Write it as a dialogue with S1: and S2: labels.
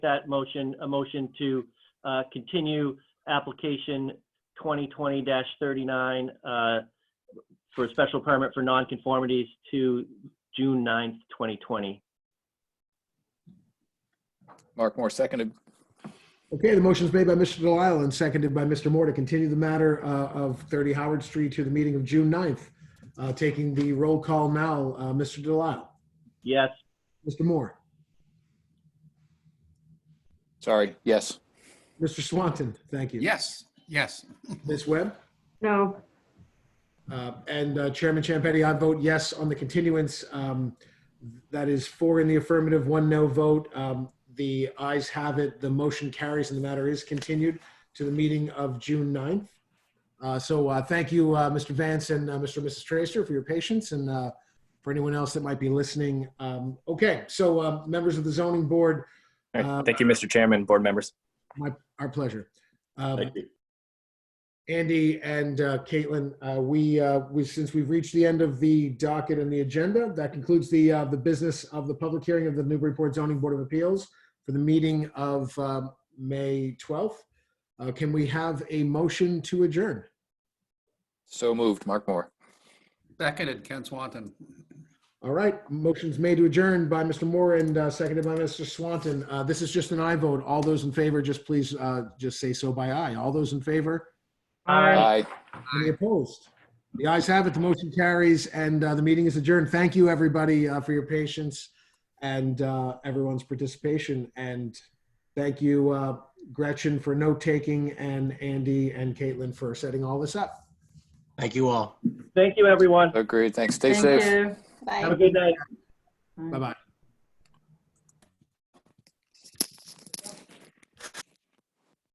S1: that motion, a motion to uh, continue application 2020-39 uh, for a special permit for nonconformities to June 9th, 2020.
S2: Mark Moore seconded.
S3: Okay, the motion is made by Mr. Delisle and seconded by Mr. Moore to continue the matter uh, of 30 Howard Street to the meeting of June 9th. Uh, Taking the roll call now, uh, Mr. Delisle,
S1: Yes,
S3: Mr. Moore,
S2: Sorry. Yes.
S3: Mr. Swanton, thank you.
S4: Yes, yes.
S3: Ms. Webb?
S5: No,
S3: Uh, And uh, Chairman Champetti, I vote yes on the continuance. Um, That is four in the affirmative, one no vote. Um, The ayes have it, the motion carries, and the matter is continued to the meeting of June 9th. Uh, So uh, thank you, uh, Mr. Vance and uh, Mr. and Mrs. Tracer, for your patience and uh, for anyone else that might be listening. Um, Okay, so uh, members of the zoning board,
S6: All
S3: Uh,
S6: right. Thank you, Mr. Chairman, board members.
S3: our pleasure. Um,
S1: thank you.
S3: Andy and uh, Caitlin, uh, we, uh, we, since we've reached the end of the docket and the agenda, that concludes the, uh, the business of the public hearing of the Newburyport Zoning Board of Appeals for the meeting of um, May 12th. Uh, Can we have a motion to adjourn?
S2: So moved. Mark Moore.
S4: Seconded, Ken Swanton.
S3: All right, motion's made to adjourn by Mr. Moore and uh, seconded by Mr. Swanton. Uh, This is just an aye vote. All those in favor, just please, uh, just say so by aye. All those in favor?
S2: Aye.
S3: Any opposed? The ayes have it, the motion carries, and uh, the meeting is adjourned. Thank you, everybody, uh, for your patience and uh, everyone's participation. And thank you, uh, Gretchen, for note-taking, and Andy and Caitlin for setting all this up.
S7: Thank you all.
S1: Thank you, everyone.
S2: Agreed. Thanks. Stay
S5: thank
S2: safe.
S5: you.
S1: Have a
S8: Bye.
S1: good night.
S3: Bye-bye.